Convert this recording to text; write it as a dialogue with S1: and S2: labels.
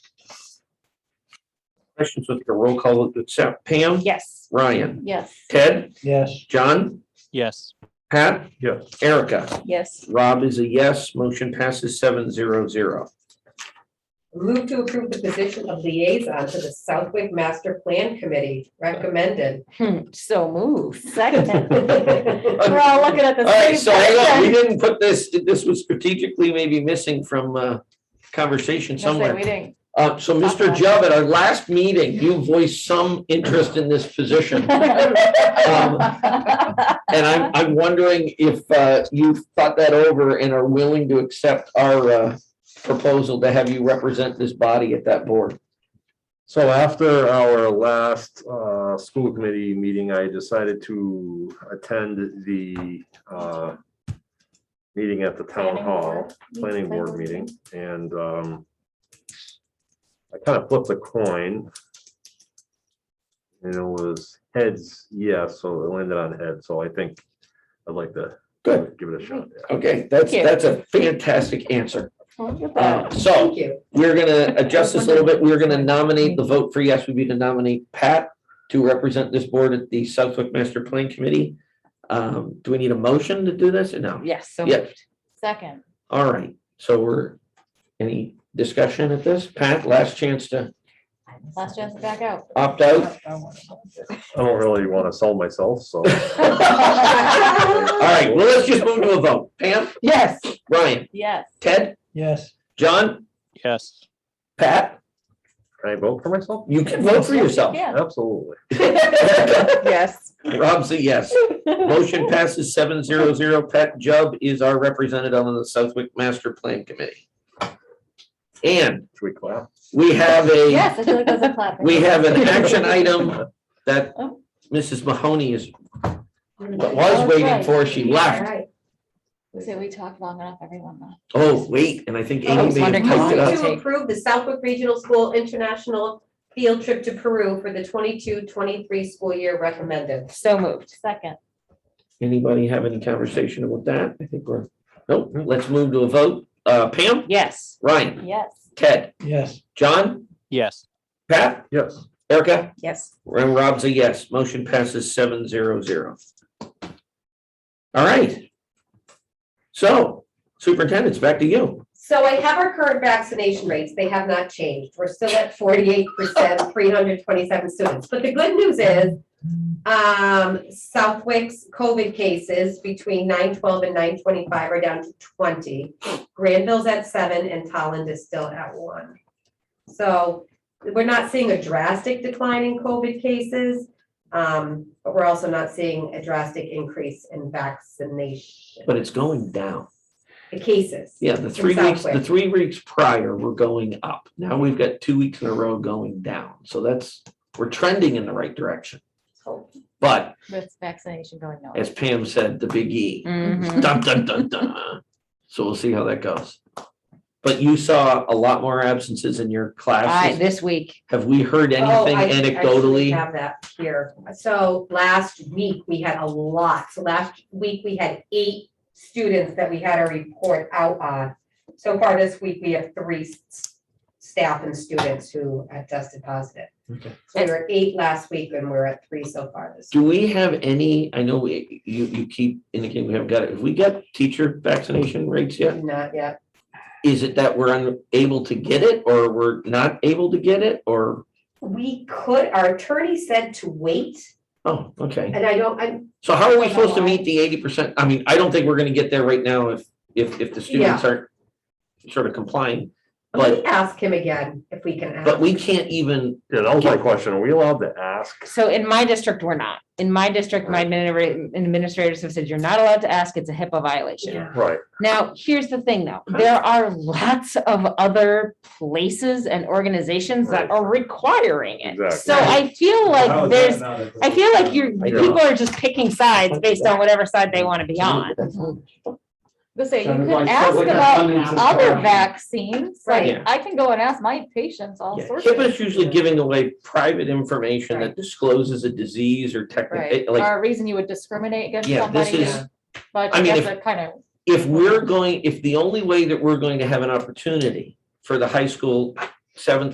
S1: questions with your roll call to accept. Pam?
S2: Yes.
S1: Ryan?
S2: Yes.
S1: Ted?
S3: Yes.
S1: John?
S4: yes,
S1: Pat?
S3: Yes.
S1: Erica?
S2: Yes.
S1: Rob is a yes. Motion passes seven zero zero.
S5: Move to approve the position of liaison to the Southwick Master Plan Committee, recommended.
S2: Hmm, So move. Second. We're
S1: All
S2: all looking at the
S1: right,
S2: same
S1: so hang on, we
S2: person.
S1: didn't put this, this was strategically maybe missing from uh conversation
S2: That's why
S1: somewhere.
S2: We didn't.
S1: Uh, so Mr. Jubb, at our last meeting, you voiced some interest in this position. And
S2: Uh-huh.
S1: I'm, I'm wondering if, uh, you've thought that over and are willing to accept our, uh, proposal to have you represent this body at that board.
S6: So after our last uh, school committee meeting, I decided to attend the uh, meeting at the town
S2: Planning
S6: hall,
S2: board.
S6: planning board meeting, and um, I kind of flipped a coin. And it was heads, yes, so it landed on heads, so I think I'd like to
S1: Good.
S6: give it a shot. yeah.
S1: Okay, that's,
S2: Thank you.
S1: that's a fantastic answer.
S2: Look at
S1: Uh,
S2: that.
S1: so
S5: Thank you.
S1: we're gonna adjust this a little bit. We're gonna nominate, the vote for yes would be to nominate Pat to represent this board at the Southwick Master Plan Committee. Um, do we need a motion to do this or no?
S2: Yes. So
S1: Yeah,
S2: Second.
S1: all right. So we're, any discussion at this? Pat, last chance to
S2: Last chance to back out.
S1: opt out?
S6: I don't really want to sell myself, so.
S1: All right, well, let's just move to a vote. Pam,
S2: Yes.
S1: Ryan,
S2: Yes.
S1: Ted,
S3: Yes.
S1: John,
S4: yes,
S1: Pat,
S6: Can I vote for myself?
S1: you can vote for yourself.
S2: Yeah.
S6: Absolutely.
S2: Yes.
S1: Rob's a yes. Motion passes seven zero zero. Pat Jubb is our representative on the Southwick Master Plan Committee. And
S6: Should we clap?
S1: we have a,
S2: Yes, I feel like that's a clap.
S1: we have an action item that
S2: Oh.
S1: Mrs. Mahoney is, was waiting for. She
S5: All
S1: left.
S5: right.
S2: So we talked long enough, everyone left.
S1: Oh, wait, and I think
S2: I
S1: Amy
S2: was
S1: may have
S2: wondering
S1: typed it
S2: how-
S1: up.
S5: Move to approve the Southwick Regional School International Field Trip to Peru for the 22-23 school year, recommended.
S2: So moved. Second.
S1: Anybody have any conversation about that? I think we're, nope, let's move to a vote. Uh, Pam,
S2: Yes.
S1: Ryan,
S2: Yes.
S1: Ted,
S3: Yes.
S1: John,
S4: yes,
S1: Pat,
S6: Yes.
S1: Erica?
S2: Yes.
S1: And Rob's a yes. Motion passes seven zero zero. All right. So superintendent's back to you.
S5: So I have our current vaccination rates. They have not changed. We're still at forty-eight percent, three hundred twenty-seven students. But the good news is um, Southwick's COVID cases between nine twelve and nine twenty-five are down to twenty. Granville's at seven and Tolland is still at one. So we're not seeing a drastic decline in COVID cases. um, but we're also not seeing a drastic increase in vaccination,
S1: But it's going down.
S5: the cases.
S1: Yeah, the three
S5: In
S1: weeks, the
S5: Southwick.
S1: three weeks prior were going up. Now we've got two weeks in a row going down. So that's, we're trending in the right direction.
S5: So
S1: But
S2: With vaccination going on.
S1: as Pam said, the big E.
S2: Mhm.
S1: Dun, dun, dun, dun. So we'll see how that goes. But you saw a lot more absences in your
S2: I,
S1: classes.
S2: this week.
S1: Have we heard
S5: Oh,
S1: anything
S5: I actually
S1: anecdotally?
S5: Have that here. So last week, we had a lot. So last week, we had eight students that we had a report out on. So far this week, we have three s- staff and students who have tested positive.
S1: Okay.
S5: So we were at eight last week and we're at three so far this.
S1: Do we have any, I know we, you, you keep indicating we haven't got it, have we got teacher vaccination rates yet?
S5: week. Not yet.
S1: Is it that we're unable to get it or we're not able to get it or,
S5: We could, our attorney said to wait,
S1: oh, okay.
S5: and I don't, I'm,
S1: So how are we supposed to meet the eighty percent? I mean, I don't think we're gonna get there right now if, if, if the students aren't sort of complying.
S5: let me
S1: But,
S5: ask him again if we can ask.
S1: but we can't even,
S6: Yeah, that was my question. Are we allowed to ask?
S7: So in my district, we're not. In my district, my administra- administrators have said, you're not allowed to ask. It's a HIPAA violation.
S5: Yeah.
S6: Right,
S7: Now, here's the thing though, there are lots of other places and organizations that
S6: Right.
S7: are requiring it.
S6: Exactly.
S7: So I feel
S2: Oh,
S7: like there's, I feel like you're,
S1: I know.
S7: people are just picking sides based on whatever side they want to be on.
S2: Let's say, you
S8: Sounded
S2: could
S8: like
S2: ask
S8: something that
S2: about
S8: come into
S2: other
S8: play.
S2: vaccines. Like,
S1: Right.
S2: I can go and ask my patients all
S1: Yeah,
S2: sorts. of
S1: HIPAA is usually
S2: things.
S1: giving away private information that discloses a disease or
S2: Right,
S1: technical, like.
S2: or a reason you would discriminate against
S1: Yeah, this
S2: somebody,
S1: is-
S2: but
S1: I
S2: I
S1: mean,
S2: guess
S1: if-
S2: that kind of,
S1: if we're going, if the only way that we're going to have an opportunity for the high school seventh